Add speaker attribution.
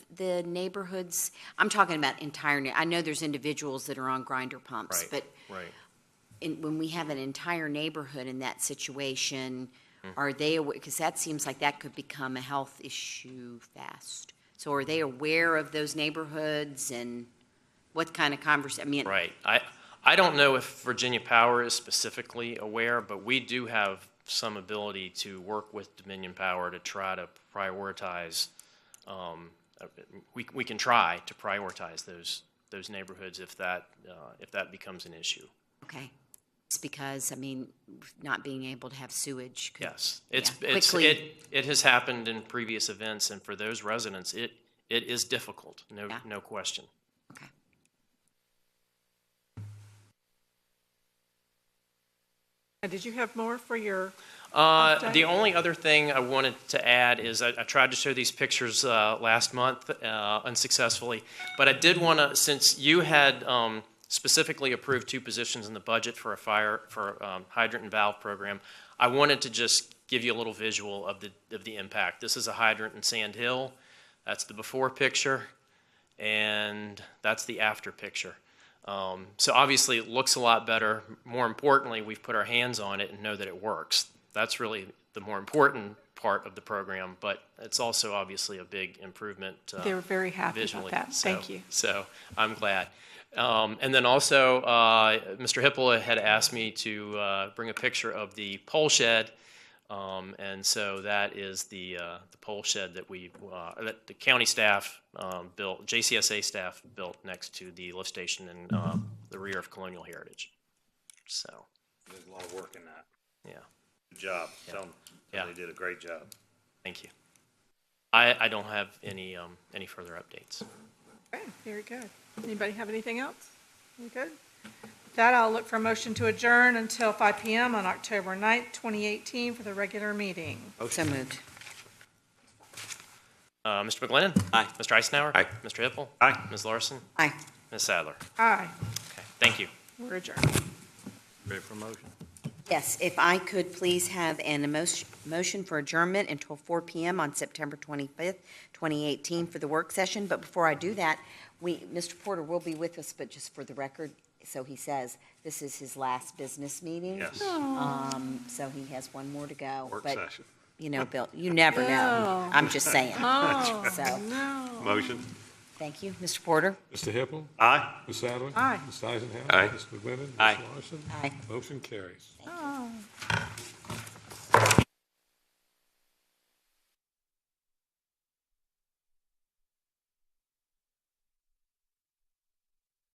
Speaker 1: the neighborhoods, I'm talking about entire, ne- I know there's individuals that are on grinder pumps,
Speaker 2: Right,
Speaker 1: but
Speaker 2: right.
Speaker 1: in, when we have an entire neighborhood in that situation,
Speaker 2: Mm-hmm.
Speaker 1: are they, because that seems like that could become a health issue fast. So are they aware of those neighborhoods and what kind of convers, I mean,
Speaker 2: Right. I, I don't know if Virginia Power is specifically aware, but we do have some ability to work with Dominion Power to try to prioritize, um, uh, we, we can try to prioritize those, those neighborhoods if that, uh, if that becomes an issue.
Speaker 1: okay. It's because, I mean, not being able to have sewage. could-
Speaker 2: Yes. It's,
Speaker 1: Yeah,
Speaker 2: it's,
Speaker 1: quickly.
Speaker 2: it, it has happened in previous events, and for those residents, it, it is difficult, no,
Speaker 1: Yeah.
Speaker 2: no question.
Speaker 1: Okay.
Speaker 3: Uh, Did you have more for your,
Speaker 2: Uh,
Speaker 3: Okay.
Speaker 2: the only other thing I wanted to add is I, I tried to show these pictures uh, last month uh, unsuccessfully, but I did want to, since you had um, specifically approved two positions in the budget for a fire for um, hydrant and valve program, I wanted to just give you a little visual of the of the impact. This is a hydrant in Sand Hill. That's the before picture and that's the after picture. Um, so obviously, it looks a lot better. More importantly, we've put our hands on it and know that it works. That's really the more important part of the program, but it's also obviously a big improvement. Uh,
Speaker 3: they were very happy about
Speaker 2: visually.
Speaker 3: that.
Speaker 2: So-
Speaker 3: Thank you.
Speaker 2: So I'm glad. Um, and then also, uh, Mr. Hippola had asked me to uh, bring a picture of the pole shed. Um, and so that is the, uh, the pole shed that we, uh, that the county staff um, built, JCSA staff built next to the lift station in
Speaker 4: Mm-hmm.
Speaker 2: um, the rear of Colonial Heritage. So,
Speaker 4: There's a lot of work in that.
Speaker 2: yeah,
Speaker 4: Good job. Tell them,
Speaker 2: Yeah.
Speaker 4: tell them they did a great job.
Speaker 2: thank you. I, I don't have any, um, any further updates.
Speaker 3: Okay, very good. Anybody have anything else? We good? With That I'll look for a motion to adjourn until five PM on October 9th, twenty eighteen for the regular meeting.
Speaker 1: So moved.
Speaker 2: Uh, Mr. McGlennon? Aye. Mr. Eisenhower?
Speaker 4: Aye.
Speaker 2: Mr. Hippel?
Speaker 4: Aye.
Speaker 2: Ms. Larson?
Speaker 1: Aye.
Speaker 2: Ms. Sadler?
Speaker 3: Aye,
Speaker 2: Okay, thank you.
Speaker 3: we're adjourned.
Speaker 4: Ready for motion?
Speaker 1: Yes, if I could please have an emotion- motion for adjournment until 4 PM on September 25th, 2018 for the work session. But before I do that, we, Mr. Porter will be with us, but just for the record, so he says, this is his last business meeting.
Speaker 4: Yes.
Speaker 1: Um, So he has one more to go.
Speaker 4: Work
Speaker 1: But,
Speaker 4: session.
Speaker 1: You know, Bill, you never know.
Speaker 3: No.
Speaker 1: I'm just saying.
Speaker 3: Oh,
Speaker 1: So,
Speaker 3: no.
Speaker 4: Motion.
Speaker 1: thank you, Mr. Porter.
Speaker 5: Mr. Hippel,
Speaker 4: Aye.
Speaker 5: Ms. Sadler.
Speaker 3: Aye.
Speaker 5: Ms. Eisenhower.
Speaker 4: Aye.
Speaker 5: Mr. McGlinnan.
Speaker 4: Aye.
Speaker 5: Ms. Larson.
Speaker 1: Aye.
Speaker 5: Motion carries.
Speaker 3: Oh.